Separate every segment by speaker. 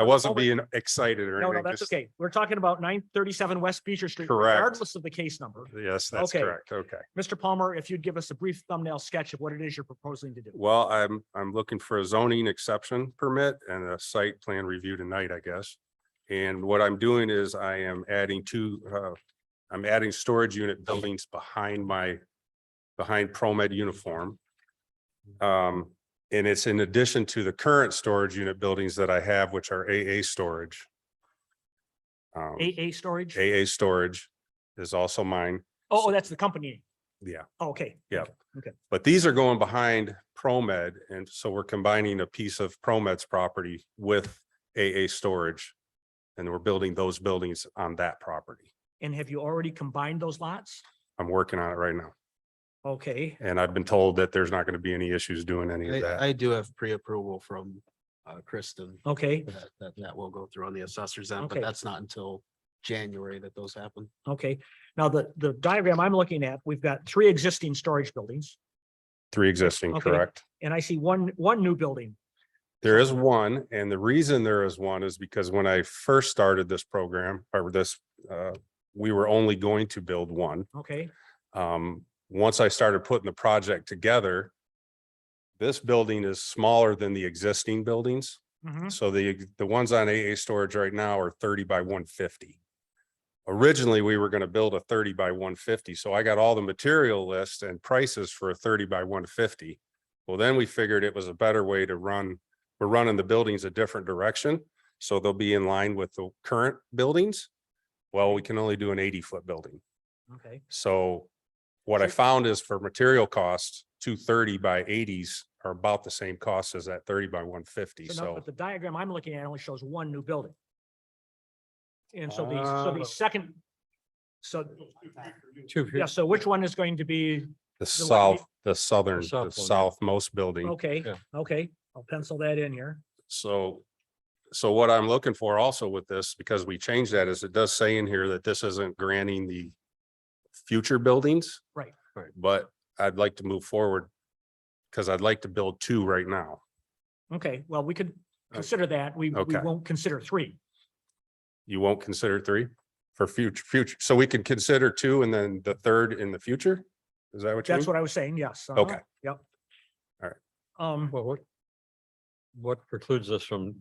Speaker 1: I wasn't
Speaker 2: Oh, wait.
Speaker 1: being excited or
Speaker 2: No, no,
Speaker 1: anything.
Speaker 2: that's
Speaker 1: just-
Speaker 2: okay. We're talking about nine thirty-seven West Beecher Street.
Speaker 1: Correct.
Speaker 2: Regardless of the case number.
Speaker 1: Yes, that's
Speaker 2: Okay.
Speaker 1: correct. Okay.
Speaker 2: Mr. Palmer, if you'd give us a brief thumbnail sketch of what it is you're proposing to do.
Speaker 1: Well, I'm, I'm looking for a zoning exception permit and a site plan review tonight, I guess. And what I'm doing is I am adding two, uh, I'm adding storage unit buildings behind my, behind ProMed uniform. Um, and it's in addition to the current storage unit buildings that I have, which are AA storage. Um,
Speaker 2: AA storage? Oh,
Speaker 1: AA storage is also mine,
Speaker 2: oh, that's the company.
Speaker 1: Yeah.
Speaker 2: Oh, Okay.
Speaker 1: Yeah. but these are going behind ProMed, and so we're combining a piece of ProMed's property with AA storage. And we're building those buildings on that property.
Speaker 2: And have you already combined those lots?
Speaker 1: I'm working on it right now,
Speaker 2: Okay,
Speaker 1: and I've been told that there's not going to be any issues doing any of
Speaker 3: I,
Speaker 1: that.
Speaker 3: I do have pre-approval from uh, Kristen
Speaker 2: okay,
Speaker 3: that, that, that will go through on the assessor's end,
Speaker 2: Okay.
Speaker 3: but that's not until January that those happen.
Speaker 2: okay. Now, the, the diagram I'm looking at, we've got three existing storage buildings
Speaker 1: Three existing,
Speaker 2: Okay.
Speaker 1: correct?
Speaker 2: and I see one, one new building.
Speaker 1: There is one, and the reason there is one is because when I first started this program, or this, uh, we were only going to build one.
Speaker 2: Okay,
Speaker 1: um, once I started putting the project together, this building is smaller than the existing buildings.
Speaker 2: mhm,
Speaker 1: So the, the ones on AA storage right now are thirty by one fifty. Originally, we were gonna build a thirty by one fifty, so I got all the material lists and prices for a thirty by one fifty. Well, then we figured it was a better way to run, we're running the buildings a different direction, so they'll be in line with the current buildings. Well, we can only do an eighty foot building.
Speaker 2: okay,
Speaker 1: So what I
Speaker 2: So-
Speaker 1: found is for material costs, two thirty by eighties are about the same cost as that thirty by one fifty,
Speaker 2: so now,
Speaker 1: so.
Speaker 2: but the diagram I'm looking at only shows one new building. And so the,
Speaker 1: Ah.
Speaker 2: so the second, so,
Speaker 3: Two.
Speaker 2: yeah, so which one is going to be,
Speaker 1: The
Speaker 2: the one-
Speaker 1: south, the southern,
Speaker 3: south
Speaker 1: the
Speaker 3: building.
Speaker 1: southmost building,
Speaker 2: okay,
Speaker 3: Yeah.
Speaker 2: okay, I'll pencil that in here.
Speaker 1: so. So what I'm looking for also with this, because we changed that, is it does say in here that this isn't granting the future buildings.
Speaker 2: Right.
Speaker 3: Right.
Speaker 1: But I'd like to move forward, because I'd like to build two right now.
Speaker 2: Okay, well, we could consider that. We, we
Speaker 1: Okay.
Speaker 2: won't consider three.
Speaker 1: You won't consider three for future, future, so we can consider two and then the third in the future? Is that what you mean?
Speaker 2: That's what I was saying, yes. uh-huh,
Speaker 1: Okay.
Speaker 2: Yep.
Speaker 1: All right.
Speaker 2: Um,
Speaker 4: Well, what, what precludes us from,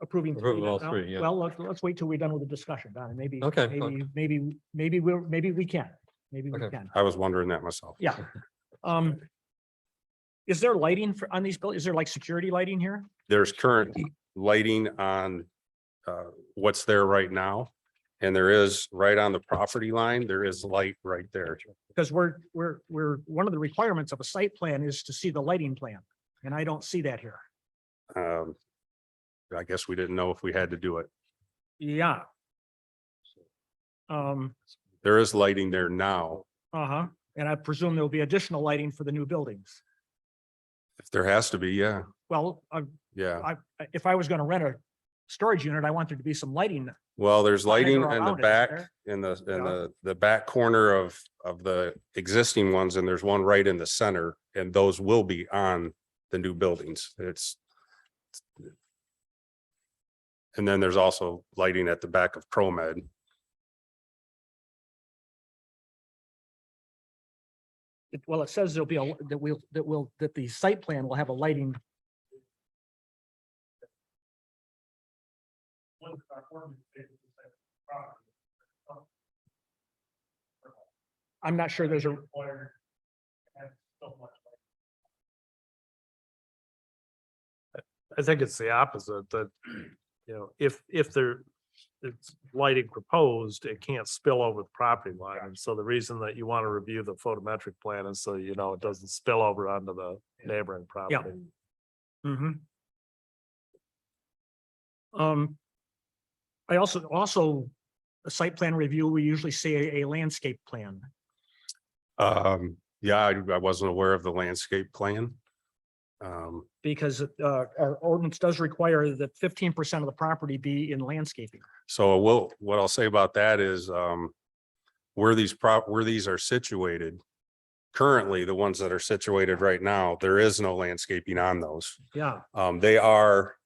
Speaker 2: approving. three
Speaker 4: approve
Speaker 2: then,
Speaker 4: all
Speaker 2: no?
Speaker 4: three, yeah.
Speaker 2: Well, let's, let's wait till we're done with the discussion, Don, and maybe.
Speaker 4: Okay,
Speaker 2: Maybe, maybe, maybe we're, maybe we can, maybe we
Speaker 4: Okay.
Speaker 2: can.
Speaker 1: I was wondering that myself.
Speaker 2: Yeah. Um, is there lighting for, on these buildings? Is there like security lighting here?
Speaker 1: There's current lighting on uh, what's there right now. And there is right on the property line, there is light right there.
Speaker 2: Because we're, we're, we're, one of the requirements of a site plan is to see the lighting plan, and I don't see that here.
Speaker 1: Um, I guess we didn't know if we had to do it.
Speaker 2: Yeah. Um,
Speaker 1: There is lighting there now.
Speaker 2: uh-huh, and I presume there'll be additional lighting for the new buildings.
Speaker 1: If there has to be, yeah,
Speaker 2: Well, uh,
Speaker 1: yeah.
Speaker 2: I, if I was gonna rent a storage unit, I want there to be some lighting.
Speaker 1: Well, there's lighting
Speaker 2: Lighting
Speaker 1: in the
Speaker 2: around it,
Speaker 1: back,
Speaker 2: there.
Speaker 1: in the, in
Speaker 2: Yeah.
Speaker 1: the, the back corner of, of the existing ones, and there's one right in the center, and those will be on the new buildings. It's and then there's also lighting at the back of ProMed.
Speaker 2: It- Well, it says there'll be a, that will, that will, that the site plan will have a lighting. I'm not sure there's a.
Speaker 5: I think it's the opposite that, you know, if, if there, it's lighting proposed, it can't spill over the property line. And so the reason that you want to review the photometric plan is so you know it doesn't spill over onto the neighboring property.
Speaker 2: Mm-hmm. Um, I also, also, a site plan review, we usually see a- a landscape plan.
Speaker 1: Um, yeah, I, I wasn't aware of the landscape plan. Um,
Speaker 2: because uh, our ordinance does require that fifteen percent of the property be in landscaping.
Speaker 1: So we'll, what I'll say about that is, um, where these prop, where these are situated. Currently, the ones that are situated right now, there is no landscaping on those.
Speaker 2: Yeah.
Speaker 1: Um, they are